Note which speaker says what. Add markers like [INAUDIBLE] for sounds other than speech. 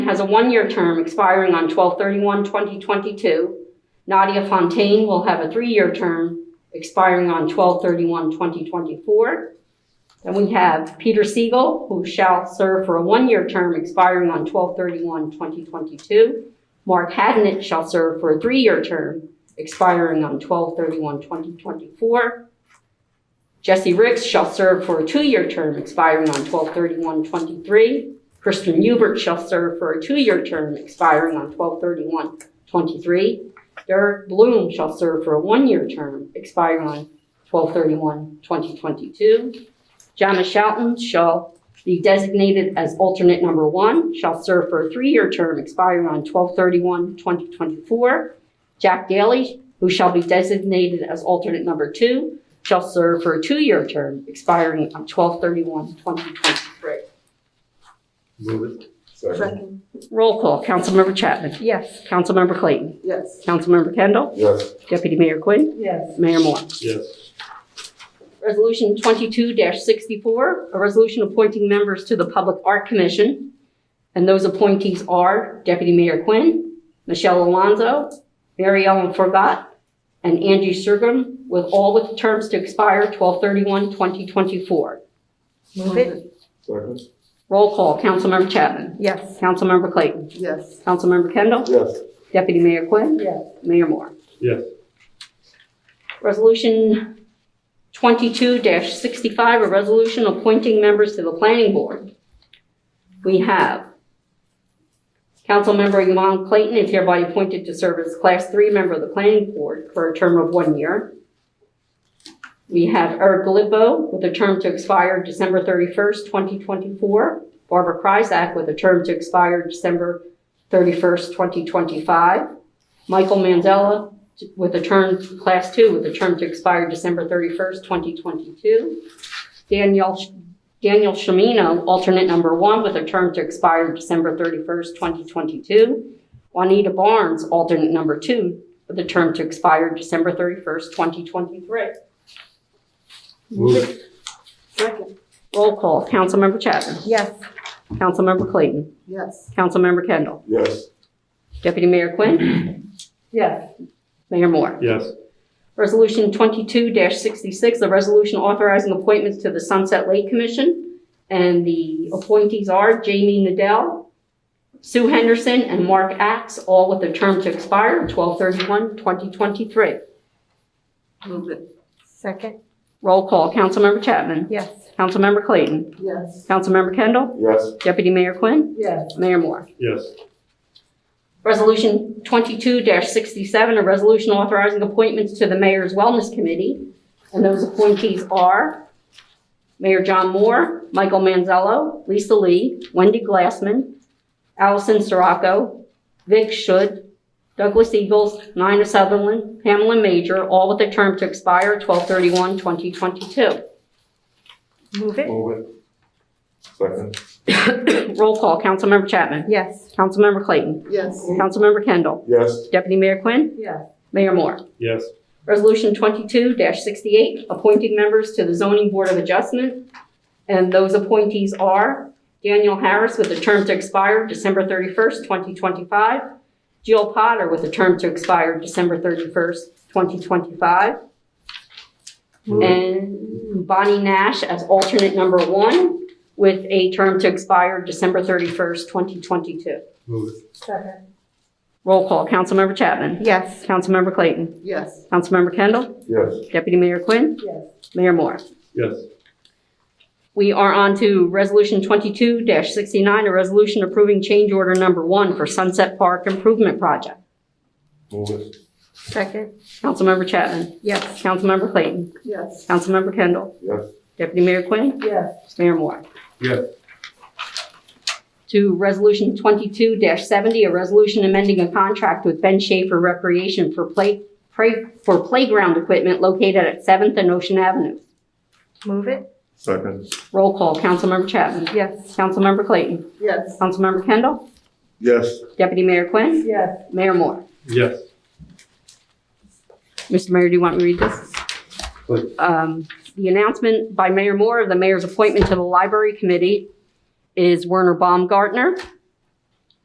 Speaker 1: has a one-year term expiring on 12/31/2022. Nadia Fontaine will have a three-year term expiring on 12/31/2024. Then we have Peter Siegel, who shall serve for a one-year term expiring on 12/31/2022. Mark Hadnett shall serve for a three-year term expiring on 12/31/2024. Jesse Ricks shall serve for a two-year term expiring on 12/31/23. Kristen Hubert shall serve for a two-year term expiring on 12/31/23. Derek Bloom shall serve for a one-year term expiring on 12/31/2022. Jana Shelton shall be designated as alternate number one, shall serve for a three-year term expiring on 12/31/2024. Jack Daly, who shall be designated as alternate number two, shall serve for a two-year term expiring on 12/31/2023.
Speaker 2: Move it.
Speaker 3: Second.
Speaker 1: Roll call, Councilmember Chapman.
Speaker 3: Yes.
Speaker 1: Councilmember Clayton.
Speaker 3: Yes.
Speaker 1: Councilmember Kendall.
Speaker 2: Yes.
Speaker 1: Deputy Mayor Quinn.
Speaker 3: Yes.
Speaker 1: Mayor Moore.
Speaker 2: Yes.
Speaker 1: Resolution 22-64, a resolution appointing members to the Public Art Commission. And those appointees are Deputy Mayor Quinn, Michelle Alonso, Mary Ellen Forgot, and Angie Sergrim, with all with terms to expire 12/31/2024.
Speaker 3: Move it.
Speaker 2: Second.
Speaker 1: Roll call, Councilmember Chapman.
Speaker 3: Yes.
Speaker 1: Councilmember Clayton.
Speaker 3: Yes.
Speaker 1: Councilmember Kendall.
Speaker 2: Yes.
Speaker 1: Deputy Mayor Quinn.
Speaker 3: Yes.
Speaker 1: Mayor Moore.
Speaker 2: Yes.
Speaker 1: Resolution 22-65, a resolution appointing members to the planning board. We have Councilmember Yvonne Clayton is hereby appointed to serve as Class 3 member of the planning board for a term of one year. We have Eric Lippo with a term to expire December 31st, 2024. Barbara Kryzak with a term to expire December 31st, 2025. Michael Manzella with a term, Class 2, with a term to expire December 31st, 2022. Daniel, Daniel Shamino, alternate number 1, with a term to expire December 31st, 2022. Juanita Barnes, alternate number 2, with a term to expire December 31st, 2023.
Speaker 2: Move it.
Speaker 3: Second.
Speaker 1: Roll call, Councilmember Chapman.
Speaker 3: Yes.
Speaker 1: Councilmember Clayton.
Speaker 3: Yes.
Speaker 1: Councilmember Kendall.
Speaker 2: Yes.
Speaker 1: Deputy Mayor Quinn.
Speaker 3: Yes.
Speaker 1: Mayor Moore.
Speaker 2: Yes.
Speaker 1: Resolution 22-66, the resolution authorizing appointments to the Sunset Lake Commission. And the appointees are Jamie Nadell, Sue Henderson, and Mark Ax, all with a term to expire 12/31/2023.
Speaker 3: Move it. Second.
Speaker 1: Roll call, Councilmember Chapman.
Speaker 3: Yes.
Speaker 1: Councilmember Clayton.
Speaker 3: Yes.
Speaker 1: Councilmember Kendall.
Speaker 2: Yes.
Speaker 1: Deputy Mayor Quinn.
Speaker 3: Yes.
Speaker 1: Mayor Moore.
Speaker 2: Yes.
Speaker 1: Resolution 22-67, a resolution authorizing appointments to the Mayor's Wellness Committee. And those appointees are Mayor John Moore, Michael Manzello, Lisa Lee, Wendy Glassman, Allison Sirocco, Vic Schut, Douglas Eagles, Nina Sutherland, Pamela Major, all with a term to expire 12/31/2022.
Speaker 3: Move it.
Speaker 2: Move it.
Speaker 1: [CLEARS THROAT]
Speaker 2: Second.
Speaker 1: Roll call, Councilmember Chapman.
Speaker 3: Yes.
Speaker 1: Councilmember Clayton.
Speaker 3: Yes.
Speaker 1: Councilmember Kendall.
Speaker 2: Yes.
Speaker 1: Deputy Mayor Quinn.
Speaker 3: Yes.
Speaker 1: Mayor Moore.
Speaker 2: Yes.
Speaker 1: Resolution 22-68, appointing members to the Zoning Board of Adjustment. And those appointees are Daniel Harris with a term to expire December 31st, 2025. Jill Potter with a term to expire December 31st, 2025.
Speaker 2: Move it.
Speaker 1: And Bonnie Nash as alternate number one with a term to expire December 31st, 2022.
Speaker 2: Move it.
Speaker 3: Second.
Speaker 1: Roll call, Councilmember Chapman.
Speaker 3: Yes.
Speaker 1: Councilmember Clayton.
Speaker 3: Yes.
Speaker 1: Councilmember Kendall.
Speaker 2: Yes.
Speaker 1: Deputy Mayor Quinn.
Speaker 3: Yes.
Speaker 1: Mayor Moore.
Speaker 2: Yes.
Speaker 1: We are on to Resolution 22-69, a resolution approving change order number one for Sunset Park Improvement Project.
Speaker 2: Move it.
Speaker 3: Second.
Speaker 1: Councilmember Chapman.
Speaker 3: Yes.
Speaker 1: Councilmember Clayton.
Speaker 3: Yes.
Speaker 1: Councilmember Kendall.
Speaker 2: Yes.
Speaker 1: Deputy Mayor Quinn.
Speaker 3: Yes.
Speaker 1: Mayor Moore.
Speaker 2: Yes.
Speaker 1: To Resolution 22-70, a resolution amending a contract with Ben Schaefer Recreation for play, pray- for playground equipment located at 7th and Ocean Avenue.
Speaker 3: Move it.
Speaker 2: Second.
Speaker 1: Roll call, Councilmember Chapman.
Speaker 3: Yes.
Speaker 1: Councilmember Clayton.
Speaker 3: Yes.
Speaker 1: Councilmember Kendall.
Speaker 2: Yes.
Speaker 1: Deputy Mayor Quinn.
Speaker 3: Yes.
Speaker 1: Mayor Moore.
Speaker 2: Yes.
Speaker 1: Mr. Mayor, do you want me to read this?
Speaker 2: Please.
Speaker 1: Um, The announcement by Mayor Moore of the mayor's appointment to the library committee is Werner Baumgartner.